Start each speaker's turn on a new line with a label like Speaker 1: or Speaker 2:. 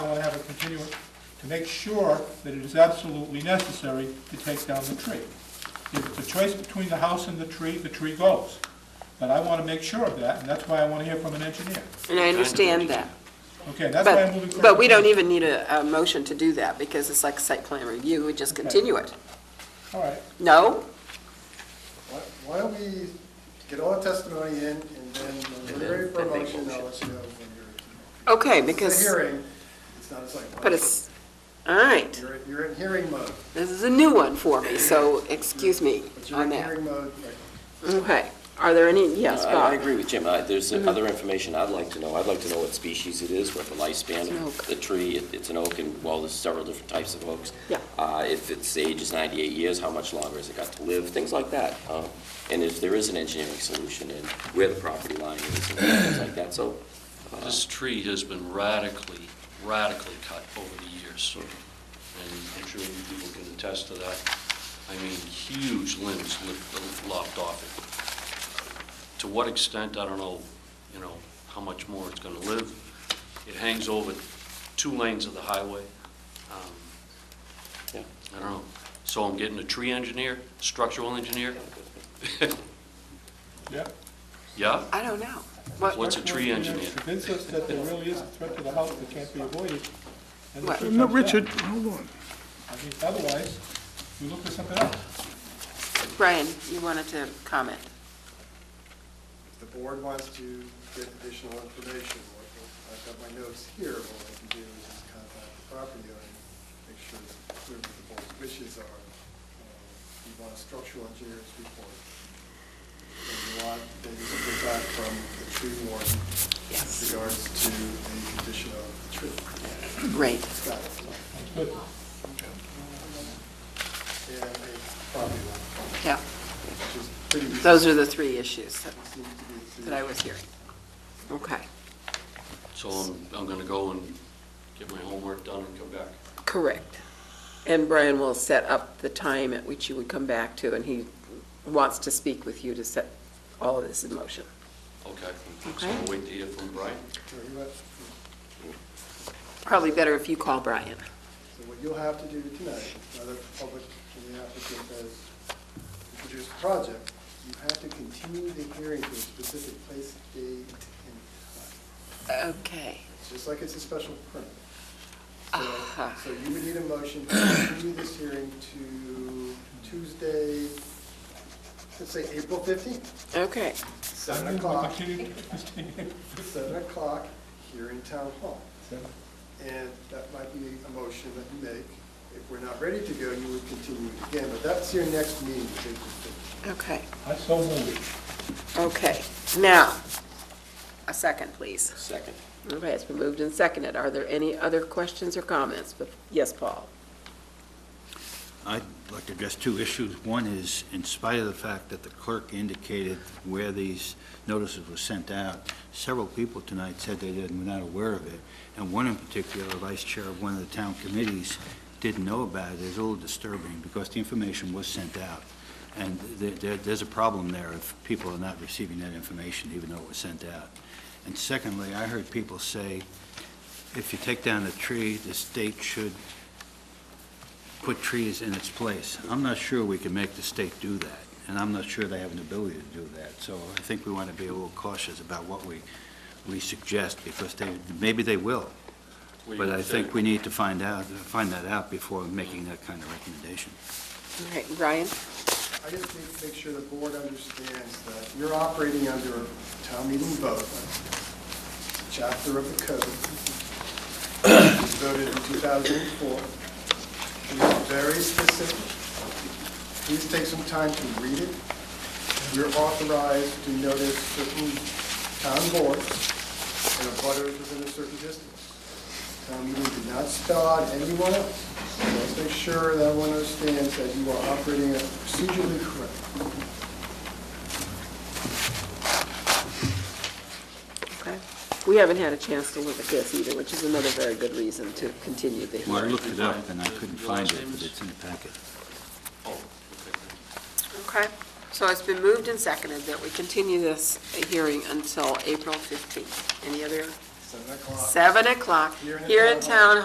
Speaker 1: continuance to make sure that it is absolutely necessary to take down the tree. If it's a choice between the house and the tree, the tree goes. But I want to make sure of that, and that's why I want to hear from an engineer.
Speaker 2: And I understand that.
Speaker 1: Okay, that's why I'm moving
Speaker 2: But,
Speaker 1: forward.
Speaker 2: but we don't even need a, a motion to do that because it's like site plan review, we just continue it.
Speaker 1: All right,
Speaker 2: No?
Speaker 3: Why- Why don't we get all the testimony in and then when we're ready for a motion, I'll let you know when you're.
Speaker 2: Okay,
Speaker 3: It's a
Speaker 2: because,
Speaker 3: hearing, it's not a site plan.
Speaker 2: but it's, all right,
Speaker 3: You're, you're in hearing mode,
Speaker 2: this is a new one for me, so excuse me
Speaker 3: but you're
Speaker 2: on
Speaker 3: in
Speaker 2: that.
Speaker 3: hearing mode right now.
Speaker 2: Okay, are there any, yes,
Speaker 4: I- I
Speaker 2: Bob? Mm-hmm.
Speaker 4: agree with Jim. I- There's other information I'd like to know. I'd like to know what species it is, what the lifespan
Speaker 2: It's an
Speaker 4: of
Speaker 2: oak.
Speaker 4: the tree. It- It's an oak, and, well, there's several different types of oaks.
Speaker 2: Yeah.
Speaker 4: Uh, If its age is 98 years, how much longer has it got to live? Things like that. Uh, And if there is an engineering solution, and where the property line is, and things like that, so. uh,
Speaker 5: This tree has been radically, radically cut over the years, and I'm sure you people can attest to that. I mean, huge limbs li- lopped off it. To what extent, I don't know, you know, how much more it's going to live. It hangs over two lanes of the highway. Um,
Speaker 4: Yeah.
Speaker 5: I don't know. So I'm getting a tree engineer, structural engineer?
Speaker 1: yeah.
Speaker 5: Yeah?
Speaker 2: I don't know. What-
Speaker 5: What's a tree engineer?
Speaker 1: Convince us that there really is a threat to the house that can't be avoided. and the
Speaker 2: What?
Speaker 1: tree
Speaker 6: No,
Speaker 1: comes down.
Speaker 6: Richard, hold on.
Speaker 1: I mean, Otherwise, we look for something else.
Speaker 2: Brian, you wanted to comment.
Speaker 3: If the board wants to get additional information, what- I've got my notes here, what I can do is just contact the property owner, and make sure it's clear what the board's wishes are. Uh, You want a structural engineer's report. And you want, maybe some feedback from the tree warden with regards to the condition of the tree.
Speaker 2: Great.
Speaker 3: Got it.
Speaker 1: Good.
Speaker 3: And a property line,
Speaker 2: Yeah,
Speaker 3: which is pretty,
Speaker 2: those are the three issues that,
Speaker 3: seems to be. the two-
Speaker 2: that I was hearing. Okay,
Speaker 5: So I'm, I'm going to go and get my homework done and come back.
Speaker 2: correct. And Brian will set up the time at which you would come back to, and he wants to speak with you to set all of this in motion.
Speaker 5: Okay. So
Speaker 2: Okay.
Speaker 5: I'll wait to hear from Brian.
Speaker 3: Sure, you have-
Speaker 2: Probably better if you call Brian.
Speaker 3: So what you'll have to do tonight, now that the public and the applicant has introduced the project, you have to continue the hearing to a specific place, date, and time.
Speaker 2: Okay.
Speaker 3: It's just like it's a special permit. So,
Speaker 2: Uh-huh.
Speaker 3: so you would need a motion to continue this hearing to Tuesday, let's say April fifteenth,
Speaker 2: Okay,
Speaker 3: seven o'clock,
Speaker 1: Continue.
Speaker 3: seven o'clock here in Town Hall.
Speaker 1: Seven.
Speaker 3: And that might be a motion that you make. If we're not ready to go, you would continue it again, but that's your next meeting. April 15th.
Speaker 2: okay,
Speaker 1: I so moved.
Speaker 2: okay. Now, a second, please.
Speaker 4: Second.
Speaker 2: Okay, it's been moved and seconded. Are there any other questions or comments? But, yes, Paul?
Speaker 7: I'd like to address two issues. One is, in spite of the fact that the clerk indicated where these notices were sent out, several people tonight said they didn't, were not aware of it, and one in particular, the vice chair of one of the town committees, didn't know about it. It's a little disturbing, because the information was sent out, and there- there- there's a problem there if people are not receiving that information, even though it was sent out. And secondly, I heard people say, if you take down a tree, the state should put trees in its place. I'm not sure we can make the state do that, and I'm not sure they have an ability to do that. So I think we want to be a little cautious about what we, we suggest, because they, maybe they will.
Speaker 5: What do you
Speaker 7: But I
Speaker 5: guys
Speaker 7: think
Speaker 5: say?
Speaker 7: we need to find out, find that out before making that kind of recommendation.
Speaker 2: All right, Brian?
Speaker 3: I just need to make sure the board understands that you're operating under a town meeting vote, a chapter of the code, It was voted in 2004. It is very specific. Please take some time to read it. You're authorized to notice certain town boards and a butter within a certain distance. Town meeting did not spell out anyone else. So Let's make sure that everyone understands that you are operating procedurally correct.
Speaker 2: Okay. We haven't had a chance to look at this either, which is another very good reason to continue the
Speaker 7: Well, I
Speaker 2: hearing.
Speaker 7: looked it up, and I couldn't find it, but it's in the packet.
Speaker 5: Oh, okay.
Speaker 2: Okay, so it's been moved and seconded that we continue this hearing until April 15th. Any other?
Speaker 3: Seven o'clock.
Speaker 2: 7 o'clock,
Speaker 3: Here in the
Speaker 2: here in
Speaker 3: town
Speaker 2: town